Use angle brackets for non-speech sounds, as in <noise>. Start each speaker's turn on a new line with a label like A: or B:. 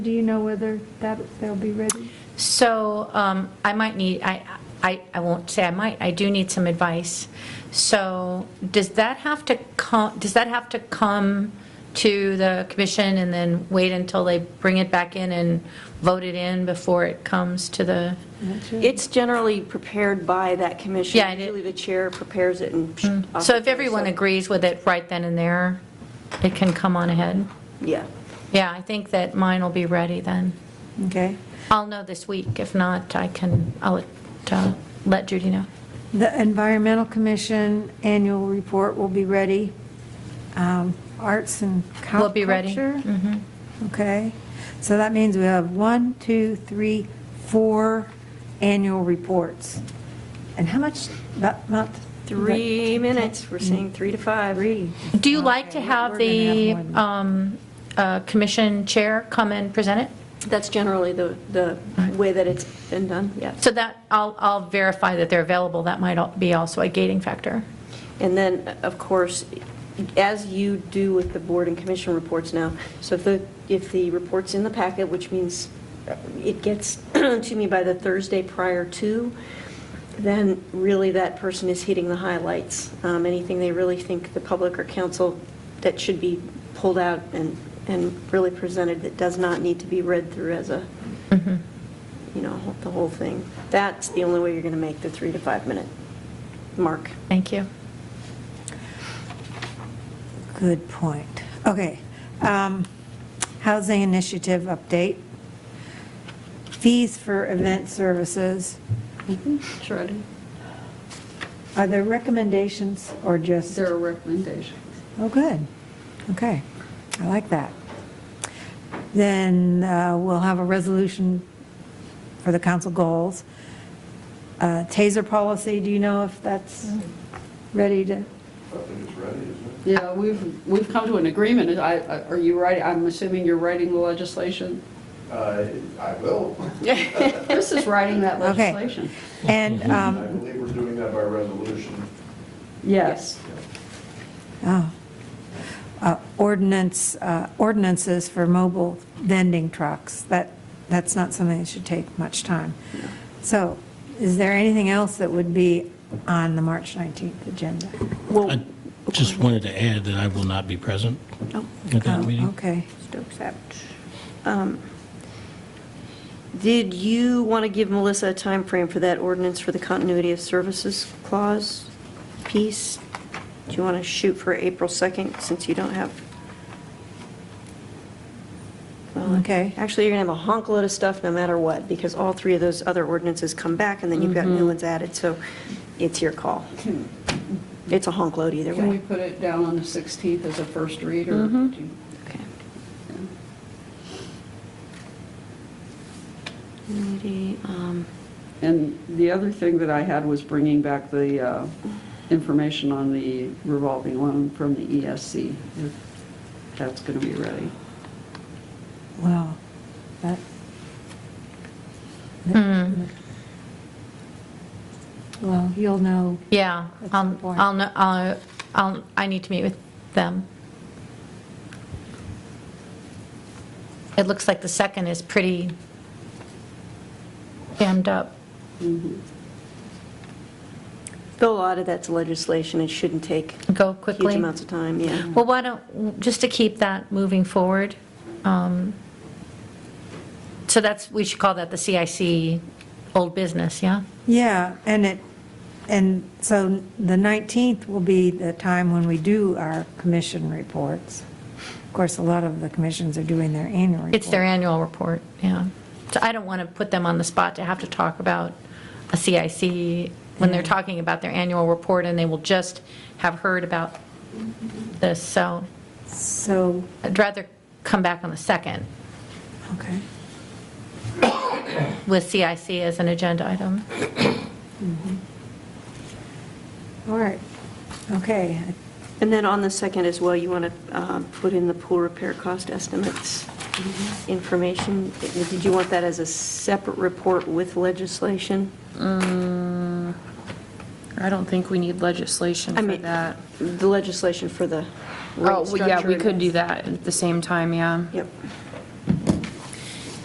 A: Do you know whether that, they'll be ready?
B: So um, I might need, I, I I won't say I might, I do need some advice. So does that have to come, does that have to come to the commission and then wait until they bring it back in and vote it in before it comes to the,
C: It's generally prepared by that commission.
B: Yeah, it is. Mm.
C: Usually the chair prepares it and.
B: so if everyone
C: agrees,
B: agrees with it right then and there, it can come on ahead?
C: Yeah.
B: Yeah, I think that mine will be ready then.
D: Okay.
B: I'll know this week, if not, I can, I'll uh, let Judy know.
D: The Environmental Commission annual report will be ready. Um, Arts and culture.
B: Will be ready. Mm-hmm.
D: Okay. So that means we have one, two, three, four annual reports. And how much, about, about?
C: Three minutes, we're saying three to five.
D: Three.
B: Do you like to
D: Okay,
B: have
D: we're gonna have
B: the
D: more than-
B: um, uh, commission chair come and present it?
C: That's generally the, the way that it's been done, yeah.
B: So that, I'll, I'll verify that they're available, that might al- be also a gating factor.
C: And then, of course, as you do with the board and commission reports now, so if the, if the report's in the packet, which means it gets <clears throat> to me by the Thursday prior to, then really that person is hitting the highlights. Um, Anything they really think the public or council that should be pulled out and, and really presented that does not need to be read through as a, you know, the whole thing. That's the only way you're going to make the three to five minute mark.
B: Thank you.
D: Good point. Okay. Um, Housing Initiative update. Fees for event services.
E: Sure, I did.
D: Are there recommendations or just?
E: There are recommendations.
D: Oh, good. Okay. I like that. Then uh, we'll have a resolution for the council goals. Uh, Taser policy, do you know if that's ready to?
E: Yeah, we've, we've come to an agreement. I, I- are you writing, I'm assuming you're writing the legislation?
F: Uh, I will.
E: Chris is writing <laughs> that
D: Okay.
E: legislation.
D: And,
F: I
D: um,
F: believe we're doing that by resolution.
E: Yes.
D: oh, uh, ordinance, uh, ordinances for mobile vending trucks, that, that's not something that should take much time. So is there anything else that would be on the March 19th agenda?
C: Well,
G: I just wanted to add that I will not be present at that
D: Oh,
G: meeting.
D: Okay.
C: Stokes out. Um, Did you want to give Melissa a time frame for that ordinance for the continuity of services clause piece? Do you want to shoot for April 2nd, since you don't have? Well,
D: Okay.
C: Actually, you're going to have a honkload of stuff no matter what, because all three of those other ordinances come back, and then you've got new ones added, so it's your call. It's a honkload either
E: Can we
C: way.
E: put it down on the 16th as a first read, or do you-
C: Okay. Continuity, um,
E: And the other thing that I had was bringing back the uh, information on the revolving loan from the ESC, if that's going to be ready.
D: Wow, that. Hmm. Well, you'll know,
B: Yeah,
D: That's
B: I'll,
D: the point.
B: I'll, kn- I'll- I'll, I need to meet with them. It looks like the second is pretty jammed up.
C: Though a lot of that's legislation, it shouldn't take
B: Go
C: huge
B: quickly.
C: amounts of time, yeah.
B: Mm-hmm. Well, why don't, just to keep that moving forward, um, so that's, we should call that the CIC old business, yeah?
D: Mm-hmm. yeah, and it, and so the 19th will be the time when we do our commission reports. Of course, a lot of the commissions are doing their annual report.
B: It's their annual report, yeah. So I don't want to put them on the spot to have to talk about a CIC when they're talking about their annual report, and they will just have heard about this, so
D: So,
B: I'd rather come back on the second
D: okay,
B: with CIC as an agenda item.
D: all right, okay.
C: And then on the second as well, you want to put in the pool repair cost estimates information. Did you want that as a separate report with legislation?
H: I don't think we need legislation
C: I
H: for
C: mean,
H: that.
C: The legislation for the rate
H: Oh,
C: structure.
H: well, yeah, we could do that at the same time, yeah.
C: Yep.